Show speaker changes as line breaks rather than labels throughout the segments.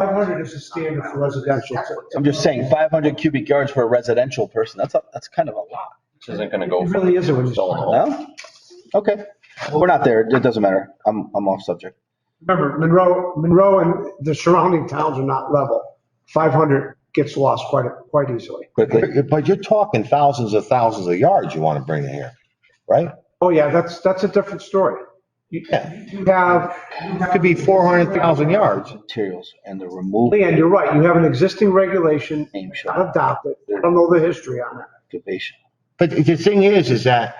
hundred is the standard for residential. So
I'm just saying, 500 cubic yards for a residential person, that's, a- that's kind of a lot.
This isn't gonna go.
It really isn't what he's
Selling
trying
the whole-
No? Okay, we're not there, it doesn't matter, I'm, I'm off subject.
Remember, Monroe, Monroe and the surrounding towns are not level. Five hundred gets lost quite, quite easily.
Quickly,
But but you're talking thousands of thousands of yards you want to bring in here, right?
Oh, yeah, that's, that's a different story. You
Yeah.
you have,
It could be 400,000 yards.
materials and the removal
Leanne, you're right, you have an existing regulation
name shall
adopted. I don't know the history on it.
activation.
But the thing is, is that,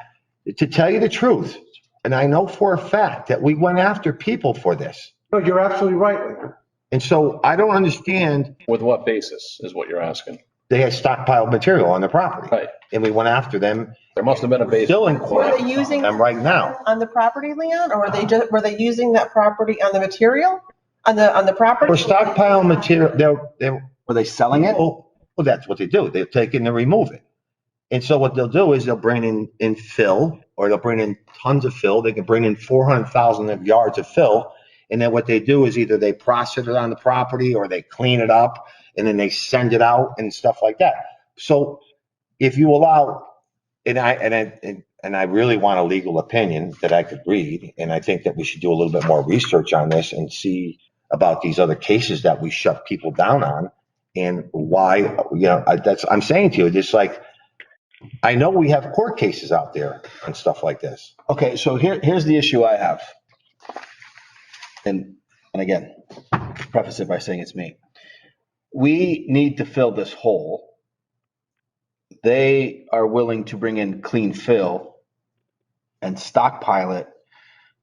to tell you the truth, and I know for a fact that we went after people for this.
No, you're absolutely right, Leanne.
And so I don't understand,
With what basis is what you're asking?
they had stockpiled material on the property.
Right.
And we went after them,
There must have been a basis.
still in
Were
court,
they using
and right now.
on the property, Leon, or were they just, were they using that property on the material, on the, on the property?
We're stockpiling material, they're, they're,
Were they selling it?
Well, well, that's what they do. They'll take it and remove it. And so what they'll do is they'll bring in, in fill, or they'll bring in tons of fill. They can bring in 400,000 of yards of fill. And then what they do is either they process it on the property or they clean it up and then they send it out and stuff like that. So if you allow, and I, and I, and- and I really want a legal opinion that I could read, and I think that we should do a little bit more research on this and see about these other cases that we shut people down on and why, you know, I- that's, I'm saying to you, just like, I know we have court cases out there and stuff like this.
Okay, so here, here's the issue I have. And, and again, preface it by saying it's me. We need to fill this hole. They are willing to bring in clean fill and stockpile it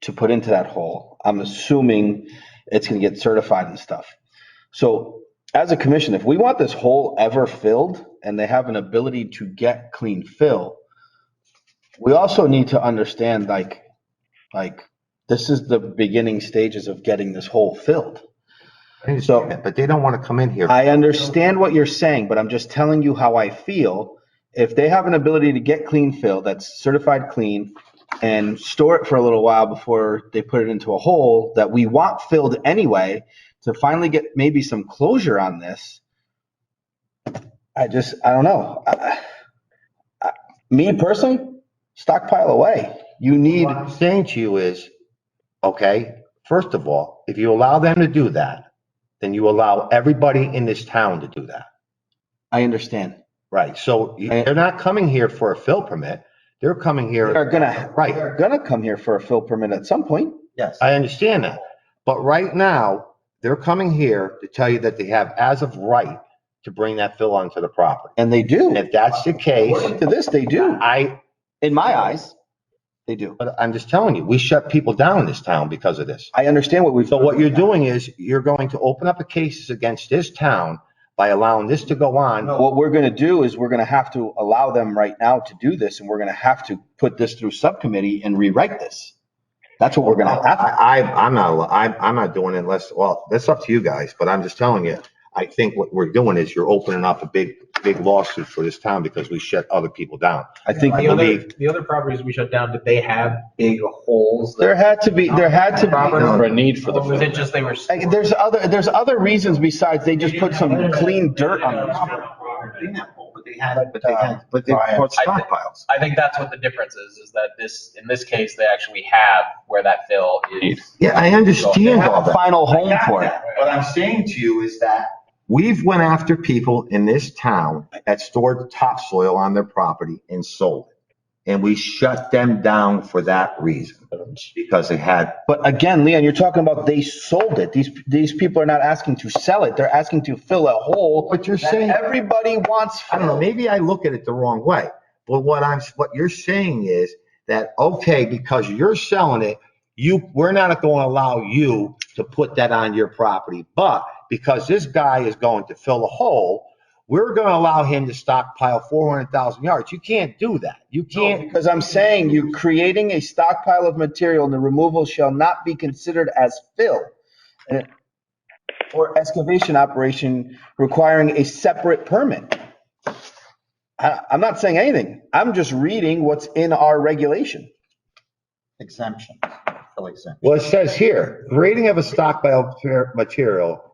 to put into that hole. I'm assuming it's gonna get certified and stuff. So as a commission, if we want this hole ever filled and they have an ability to get clean fill, we also need to understand like like this is the beginning stages of getting this hole filled
So, but they don't want to come in here.
i understand what you're saying but i'm just telling you how i feel if they have an ability to get clean fill that's certified clean and store it for a little while before they put it into a hole that we want filled anyway to finally get maybe some closure on this i just i don't know I, I, I- me personally stockpile away you need
What I'm saying to you is, okay, first of all, if you allow them to do that, then you allow everybody in this town to do that.
I understand.
Right? So you- they're not coming here for a fill permit. They're coming here.
They're gonna,
Right.
they're gonna come here for a fill permit at some point. Yes.
I understand that. But right now, they're coming here to tell you that they have as of right to bring that fill onto the property.
And they
And
do.
if that's the case,
According to this, they do.
I,
In my eyes, they do.
but I'm just telling you, we shut people down in this town because of this.
I understand what we've.
So what you're doing is you're going to open up a cases against this town by allowing this to go on.
What we're gonna do is we're gonna have to allow them right now to do this and we're gonna have to put this through subcommittee and rewrite this. That's what we're gonna have. to-
I, I- I'm not, I'm, I'm not doing it unless, well, that's up to you guys, but I'm just telling you. I think what we're doing is you're opening up a big, big lawsuit for this town because we shut other people down.
I think
The other,
believe-
the other properties we shut down, did they have big holes? that-
there had to be, there had to be,
For a need for the.
Or was it just they were?
like, there's other, there's other reasons besides they just put some clean dirt on the property.
But they
um,
had, but they bought stockpiles.
I think that's what the difference is, is that this, in this case, they actually have where that fill is.
Yeah, I
They
understand all
have a
that.
final home for it.
What I'm saying to you is that we've went after people in this town that stored topsoil on their property and sold it. And we shut them down for that reason, because they had,
But again, Leon, you're talking about they sold it. These, these people are not asking to sell it. They're asking to fill a hole.
But you're
that
saying-
Everybody wants.
I don't know, maybe I look at it the wrong way. But what I'm, what you're saying is that, okay, because you're selling it, you, we're not going to allow you to put that on your property. But because this guy is going to fill a hole, we're going to allow him to stockpile 400,000 yards. You can't do that. You can't.
Because I'm saying you're creating a stockpile of material and the removal shall not be considered as fill. And it- Or excavation operation requiring a separate permit. I, I'm not saying anything. I'm just reading what's in our regulation.
exemption, fill exemption.
Well, it says here, grading of a stockpile of material